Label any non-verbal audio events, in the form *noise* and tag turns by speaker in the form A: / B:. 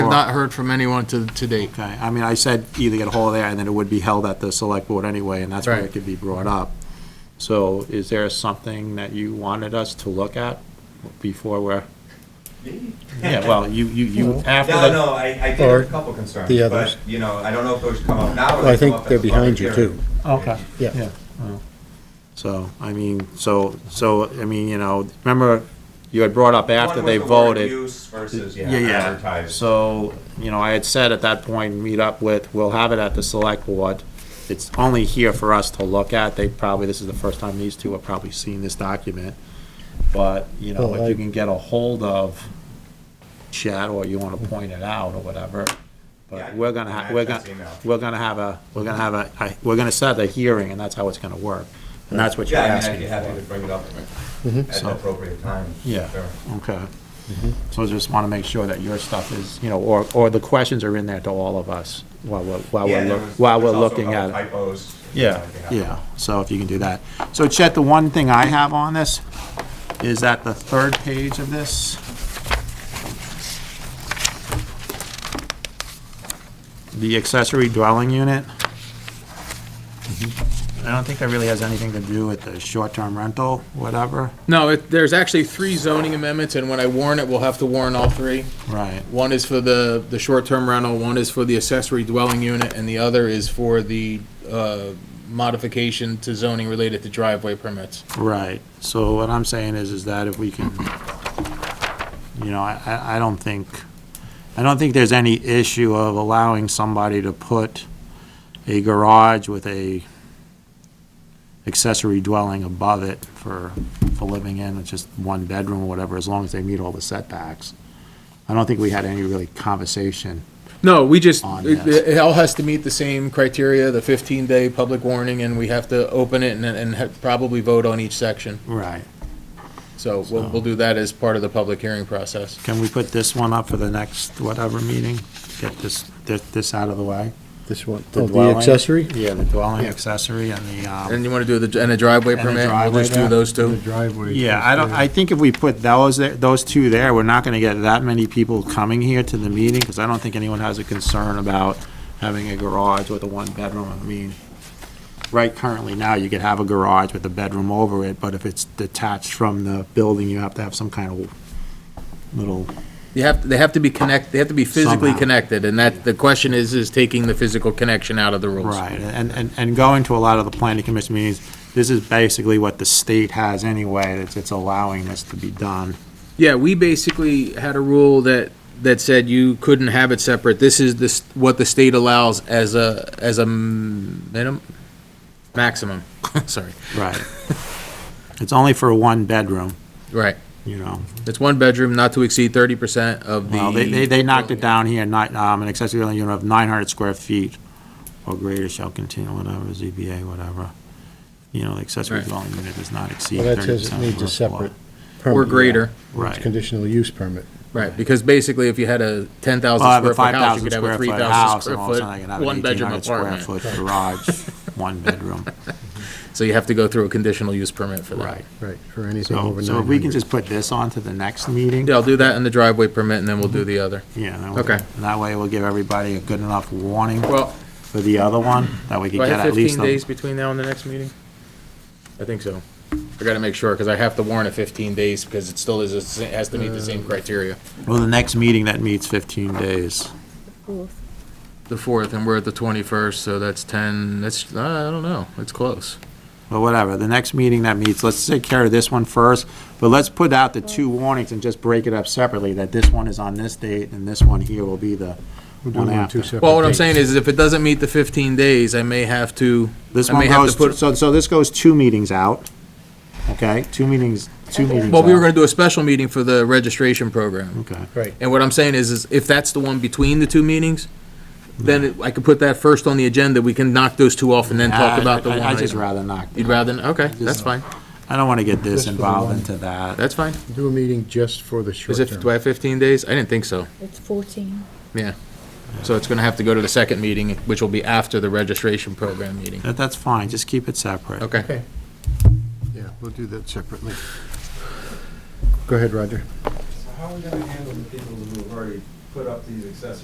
A: Have not heard from anyone to, to date.
B: Okay, I mean, I said either get a hold of there, and then it would be held at the select board anyway, and that's where
A: Right.
B: it could be brought up. So is there something that you wanted us to look at before we're,
C: Me? *laughs*
B: yeah, well, you, you, you, after
C: No,
B: the,
C: no, I, I did
D: Or
C: have a couple concerns,
D: the
C: but,
D: others.
C: you know, I don't know if those come up now or
D: Well, I
C: they come
D: think
C: up at
D: they're
C: the
D: behind
C: public
D: you,
C: hearing.
D: too.
B: okay,
D: Yeah.
B: yeah. well, So, I mean, so, so, I mean, you know, remember, you had brought up after
C: One
B: they
C: was the word
B: voted.
C: Use versus, yeah,
B: Yeah, yeah.
C: advertised.
B: So, you know, I had said at that point, meet up with, we'll have it at the select board. It's only here for us to look at. They probably, this is the first time these two have probably seen this document. But, you know,
D: Well,
B: if
D: I-
B: you can get a hold of Chad or you want to point it out or whatever.
C: Yeah, I-
B: But we're gonna, ha-
C: I-
B: we're
C: that's
B: gonna,
C: email.
B: we're gonna have a, we're gonna have a, I- we're gonna set a hearing and that's how it's gonna work. And that's what you're
C: Yeah, I mean, I'd
B: asking
C: be
B: for.
C: happy to bring it up
D: Mm-hmm.
C: at
B: So-
C: the appropriate time.
B: Yeah.
C: Sure.
B: Okay. So I just want to make sure that your stuff is, you know, or, or the questions are in there to all of us while we're, while
C: Yeah,
B: we're,
C: and there
B: look-
C: was-
B: while we're
C: there's also a
B: looking
C: couple
B: at it.
C: Typos.
B: Yeah,
C: I'd be happy.
B: yeah, so if you can do that. So Chet, the one thing I have on this is that the third page of this. The accessory dwelling unit. I don't think that really has anything to do with the short-term rental, whatever.
A: No, it, there's actually three zoning amendments, and when I warn it, we'll have to warn all three.
B: Right.
A: One is for the, the short-term rental, one is for the accessory dwelling unit, and the other is for the, uh, modification to zoning related to driveway permits.
B: Right, so what I'm saying is, is that if we can, you know, I, I- I don't think, I don't think there's any issue of allowing somebody to put a garage with a accessory dwelling above it for, for living in, it's just one bedroom or whatever, as long as they meet all the setbacks. I don't think we had any really conversation.
A: No, we just,
B: On
A: it,
B: that.
A: it all has to meet the same criteria, the fifteen-day public warning, and we have to open it and, and ha- probably vote on each section.
B: Right.
A: So we'll, we'll do that as part of the public hearing process.
B: Can we put this one up for the next whatever meeting? Get this, this this out of the way?
D: This one,
B: The
D: oh, the
B: dwelling?
D: accessory?
B: Yeah, the dwelling accessory and the, um.
A: And you wanna do the, and a driveway
B: And a
A: permit, we'll
B: driveway
A: just do
B: there.
A: those two?
D: driveway.
B: Yeah, I don't, I think if we put those, there- those two there, we're not gonna get that many people coming here to the meeting, because I don't think anyone has a concern about having a garage with a one-bedroom, I mean, right currently now, you could have a garage with a bedroom over it, but if it's detached from the building, you have to have some kind of little,
A: You have, they have to be connect, they have to be physically
B: Somehow.
A: connected, and that, the question is, is taking the physical connection out of the rules.
B: right, and, and, and going to a lot of the planning commission meetings, this is basically what the state has anyway, it's, it's allowing this to be done.
A: Yeah, we basically had a rule that, that said you couldn't have it separate. This is this, what the state allows as a, as a minimum, maximum, *laughs* sorry.
B: Right. *laughs* It's only for one bedroom,
A: Right.
B: you know,
A: It's one bedroom, not to exceed thirty percent of the.
B: Well, they, they, they knocked it down here, not, um, an accessory dwelling unit of nine hundred square feet or greater shall continue, whatever, ZBA, whatever. You know, the accessory
A: Right.
B: dwelling unit does not exceed
D: Well, that
B: thirty
D: says it
B: percent.
D: needs a separate. permit.
A: Or greater,
D: It's
B: Right.
D: Conditional use permit.
A: right, because basically if you had a ten thousand
B: Well, I have a
A: square foot
B: five
A: house, you
B: thousand
A: could have a
B: square
A: three
B: foot
A: thousand
B: house, and all of a
A: square
B: sudden I can have
A: foot,
B: an
A: one
B: eighteen
A: bedroom
B: hundred square
A: apartment.
B: foot garage, one bedroom.
A: So you have to go through a conditional use permit *laughs* for that.
B: Right.
D: Right, for anything
B: So,
D: over
B: so if we can
D: 900.
B: just put this on to the next meeting.
A: Yeah, I'll do that in the driveway permit, and then we'll do the other.
B: Yeah. that would-
A: Okay.
B: and That way we'll give everybody a good enough warning
A: Well,
B: for the other one, that we could
A: do I
B: get
A: have
B: at least.
A: 15
B: a-
A: days between now and the next meeting? I think so. I gotta make sure, because I have to warn it 15 days, because it still is, it has to meet the same criteria.
B: Well, the next meeting that meets fifteen days.
A: The 4th, and we're at the 21st, so that's 10, that's, I don't know, it's close.
B: Well, whatever, the next meeting that meets, let's take care of this one first, but let's put out the two warnings and just break it up separately, that this one is on this date and this one here will be the
D: We're
B: one
D: doing them two
B: after.
D: separate
A: Well, what I'm
D: dates.
A: saying is, if it doesn't meet the 15 days, I may have to,
B: This
A: I may
B: one
A: have to
B: goes,
A: put-
B: so, so this goes two meetings out, okay? Two meetings, two meetings
A: well, we were
B: out.
A: gonna do a special meeting for the registration program.
B: Okay,
D: Right,
A: And what I'm saying is, is if that's the one between the two meetings, then it- I could put that first on the agenda, we can knock those two off and then talk
B: I-
A: about the
B: I-
A: one
B: i just
A: item.
B: rather not,
A: You'd rather, okay, that's fine,
B: I don't wanna get this
D: Just for the
B: involved
D: one.
B: into that.
A: that's fine.
D: do a meeting just for the short
A: Is it, do
D: term.
A: I have 15 days? I didn't think so.
E: It's 14.
A: So it's gonna have to go to the second meeting, which will be after the registration program meeting.
B: That, that's fine, just keep it separate.
A: Okay.
D: Yeah, we'll do that separately. Go ahead, Roger.
C: So how are we gonna handle the people who have already put up these accessory